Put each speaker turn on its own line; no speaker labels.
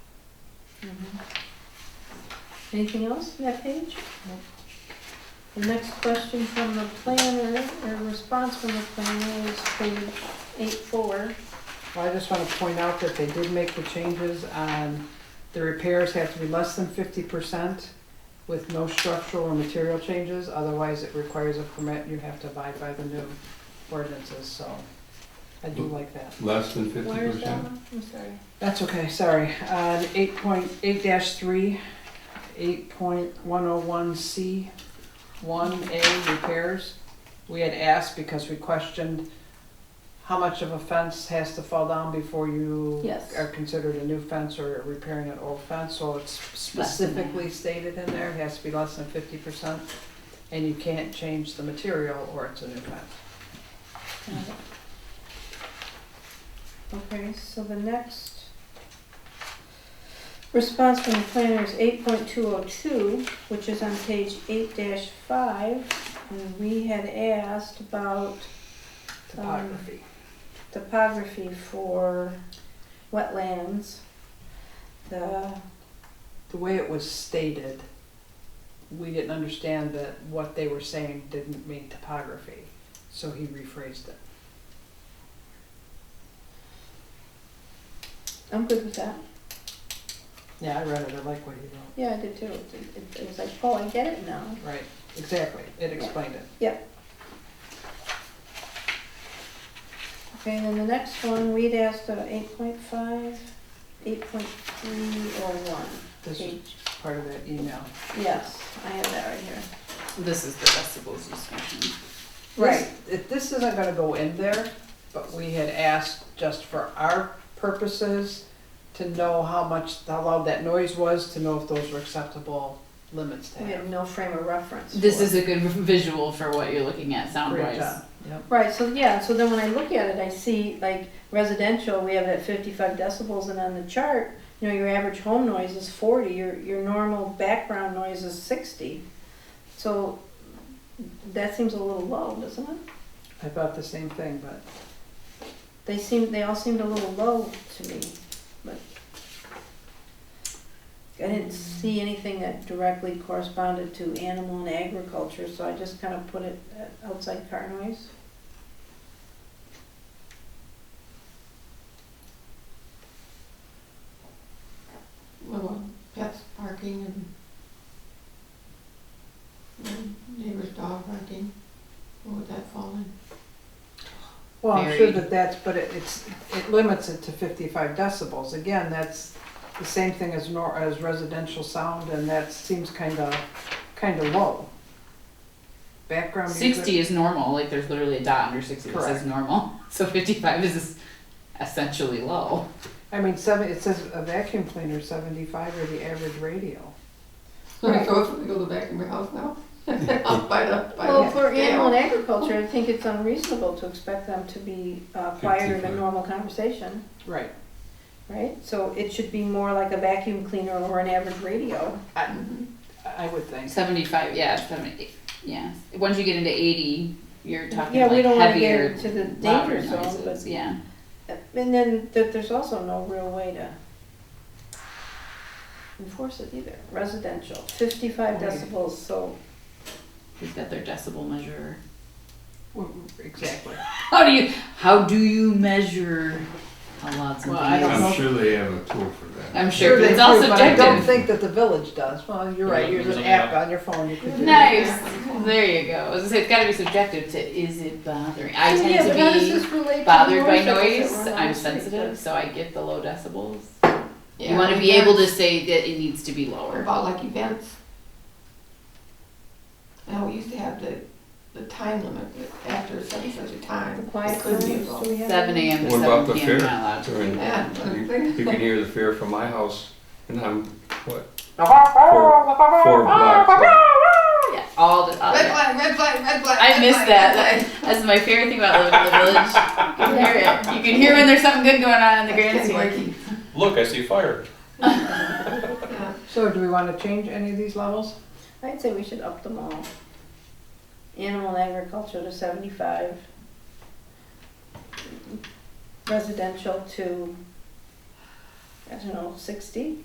Mm-hmm. Anything else on that page? The next question from the planner, or response from the planner is page eight four.
Well, I just want to point out that they did make the changes on, the repairs have to be less than fifty percent with no structural or material changes, otherwise it requires a permit, and you have to abide by the new ordinances, so I do like that.
Less than fifty
Where is that
percent?
one? I'm sorry.
That's okay, sorry. Uh, eight point, eight dash three, eight point one oh one C, one A repairs. We had asked because we questioned how much of a fence has to fall down before you
Yes.
are considered a new fence or repairing an old fence, so it's
Less than that.
specifically stated in there, it has to be less than fifty percent. And you can't change the material or it's a new fence.
Got it. Okay, so the next response from the planner is eight point two oh two, which is on page eight five. And we had asked about
Topography.
topography for wetlands. The,
the way it was stated, we didn't understand that what they were saying didn't mean topography, so he rephrased it.
I'm good with that.
Yeah, I read it, I like what he wrote.
Yeah, I did too. It- it- It was like, oh, I get it now.
Right, exactly, it explained it.
Okay, and then the next one, we'd asked uh, 8.5, 8.301.
This is
page.
part of that email.
Yes, I have that right here.
This is the decibels discussion.
Right.
This- it- This isn't gonna go in there, but we had asked just for our purposes to know how much, how loud that noise was, to know if those were acceptable limits to
We have
have.
no frame of reference.
This
for it.
is a good visual for what you're looking at sound
Great
wise.
job, yep.
Right, so yeah, so then when I look at it, I see like residential, we have it at fifty-five decibels, and on the chart, you know, your average home noise is forty, your, your normal background noise is sixty. So that seems a little low, doesn't it?
I thought the same thing, but
They seem, they all seemed a little low to me, but I didn't see anything that directly corresponded to animal and agriculture, so I just kind of put it at outside car noise.
little pets barking and and neighbor's dog barking, what would that fall in?
Well, I'm sure
Very-
that that's, but it- it's, it limits it to fifty-five decibels. Again, that's the same thing as nor, as residential sound, and that seems kinda, kinda low. Background music.
Sixty is normal, like there's literally a dot under sixty that
Correct.
says normal. So fifty-five is essentially low.
I mean, seven, it says a vacuum cleaner, seventy-five or the average radio.
Right.
Go, if we go back in your house now? I'll buy the, buy
Well,
the
for animal
scale.
and agriculture, I think it's unreasonable to expect them to be uh, quieter than
55.
normal conversation,
Right.
right? So it should be more like a vacuum cleaner or an average radio.
Mhm.
I would think.
Seventy-five, yeah, seventy, yeah. Once you get into eighty, you're talking
Yeah, we
like
don't wanna get
heavier,
into the
louder
danger zone,
noises,
but-
yeah.
And then that there's also no real way to enforce it either. Residential, fifty-five
Right.
decibels, so
We've got their decibel measurer.
Well, Exactly.
How do you, how do you measure how loud something
Well,
is?
I don't know.
I'm sure they have a tool for that.
I'm sure, but
they
it's all
do, But I don't
subjective.
think that the village does. Well, you're right,
Yeah,
Use an
there's a
app on your phone, you could do. that.
Nice. There you go. I was gonna say, it's got to be subjective to is it bothering? I tend
Oh, Yeah, but how does
to
this relate to
be
the
bothered by
noise levels
noise.
that we're on
I'm
the street?
sensitive, so I get the low decibels.
Yeah,
you want to
like
be able to
events.
say that it needs to be
What
lower.
about like events? Now, we used to have the, the time limit, but after such and such a
The
time,
quiet
it could
times,
be
do
involved.
we have?
Seven a.m. to
What about
seven
the
p.m.
fair?
Not allowed.
During-
Yeah.
You you can hear the fear from my house, and I'm, what? Four four blocks. away.
Yeah, all the. All
Red
the
flag, red flag, red flag.
I
red
miss
flag,
that.
red flag.
That's my favorite thing about living in the village. You can hear it. You can hear when there's something good going on in the grand
That's
scheme.
wacky.
Look, I see fire.
Yeah.
So do we wanna change any of these levels?
I'd say we should up them all. Animal and agriculture to seventy-five. Residential to, I don't know, sixty?